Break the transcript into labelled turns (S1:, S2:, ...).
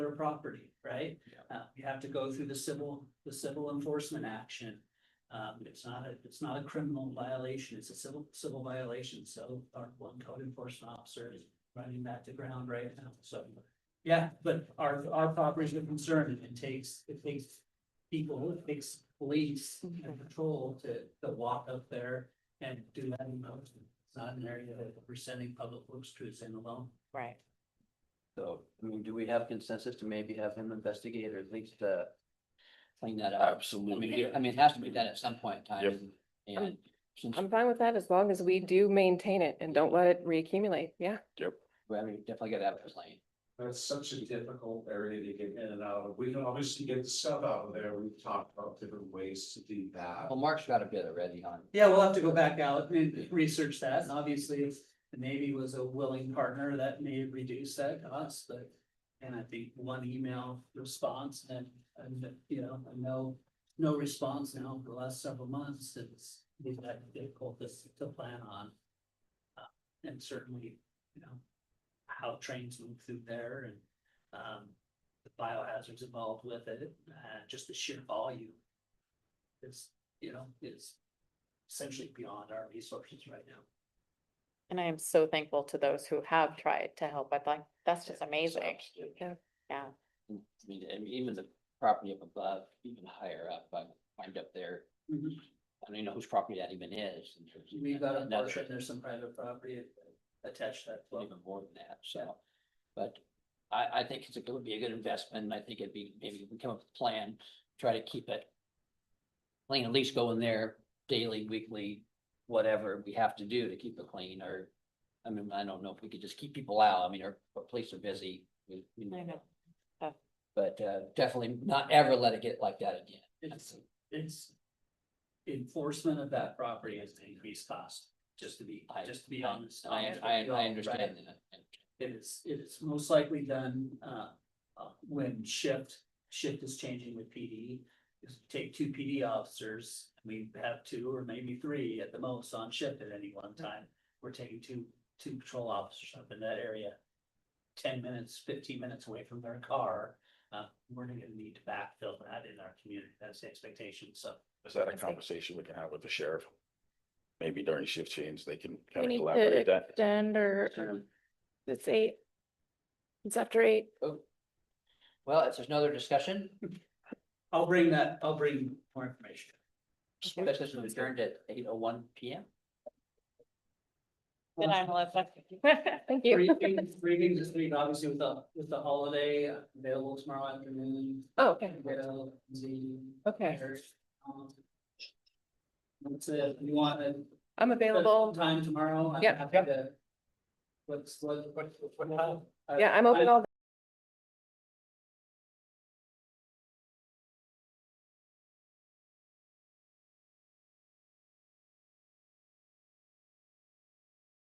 S1: their property, right? Uh, you have to go through the civil, the civil enforcement action. Um, it's not a, it's not a criminal violation, it's a civil, civil violation, so our one code enforcement officer is running that to ground right now, so. Yeah, but our, our properties are concerned, and it takes, it takes people, it takes police and patrol to, to walk up there and do that in motion. It's not an area that we're sending public works crews in alone.
S2: Right.
S3: So, I mean, do we have consensus to maybe have him investigate or at least, uh, clean that up? I mean,
S4: Absolutely.
S3: it- I mean, it has to be done at some point in
S4: Yep.
S3: time. And since,
S2: I'm fine with that as long as we
S5: Mm-hmm.
S2: do maintain it and don't let it reaccumulate. Yeah.
S3: I mean, definitely gotta have a plan.
S6: That's such a difficult area to get in and out of. We can obviously get the stuff out of there. We've talked about different ways to do that.
S3: Well, Mark's got a bit already on.
S1: Yeah, we'll have to go back out and research that, and obviously if the Navy was a willing partner, that may reduce that cost, but. And I think one email response and, and, you know, and no, no response now for the last several months, it's been that difficult to, to plan on. Uh, And certainly, you know, how trains move through there and, um, the biohazards involved with it, uh, just the sheer volume. Is, you know, is essentially beyond our resources right now.
S5: And I am so thankful to those who have tried to help. I like, that's just amazing.
S3: Absolutely.
S5: Yeah.
S3: I mean, and even the property up above, even higher up, I climbed up there.
S1: Mhm.
S3: I don't even know whose property that even is. in terms of-
S1: We got a
S3: another-
S1: portion, there's some private property attached to that.
S3: well,
S1: well.
S3: even more than that, so. But I, I think it's a, it would be a good investment, and I think it'd be, maybe we can come up with a plan, try to keep it. Clean, at least go in there daily, weekly, whatever we have to do to keep it clean, or. I mean, I don't know if we could just keep people out, I mean, our, our police are busy. we- we
S5: I know. Yeah.
S3: But, uh, definitely not ever let it get like that again.
S1: It's, it's enforcement of that property is an increased cost, just to be,
S3: I-
S1: just to be
S3: I-
S1: honest.
S3: I, I, I understand that.
S1: It is, it is most likely done, uh, uh, when shift, shift is changing with PD. Just take two PD officers, we have two or maybe three at the most on shift at any one time. We're taking two, two patrol officers up in that area. Ten minutes, fifteen minutes away from their car, uh, we're gonna need to backfill that in our community, that's the expectation, so.
S4: Is that a
S2: Okay.
S4: conversation we can have with the sheriff? Maybe during shift change, they can
S2: We
S4: kind
S2: need
S4: of
S2: to
S4: collaborate that.
S2: Extend or, um, it's eight. It's after eight.
S3: Well, if there's no other discussion,
S1: I'll bring that, I'll bring more information.
S3: this is adjourned at eight oh one P M.
S5: Good night, Melissa.
S2: Thank
S1: Three
S2: you.
S1: things, three things this week, obviously with the, with the holiday available tomorrow afternoon.
S2: Oh, okay.
S1: Widow, Z,
S2: Okay.
S1: Harris, um, That's it, you want a.
S2: I'm available.
S1: Time tomorrow. I'm
S2: Yep.
S1: happy to- What's, what, Uh, what, what?
S2: Yeah, I'm open all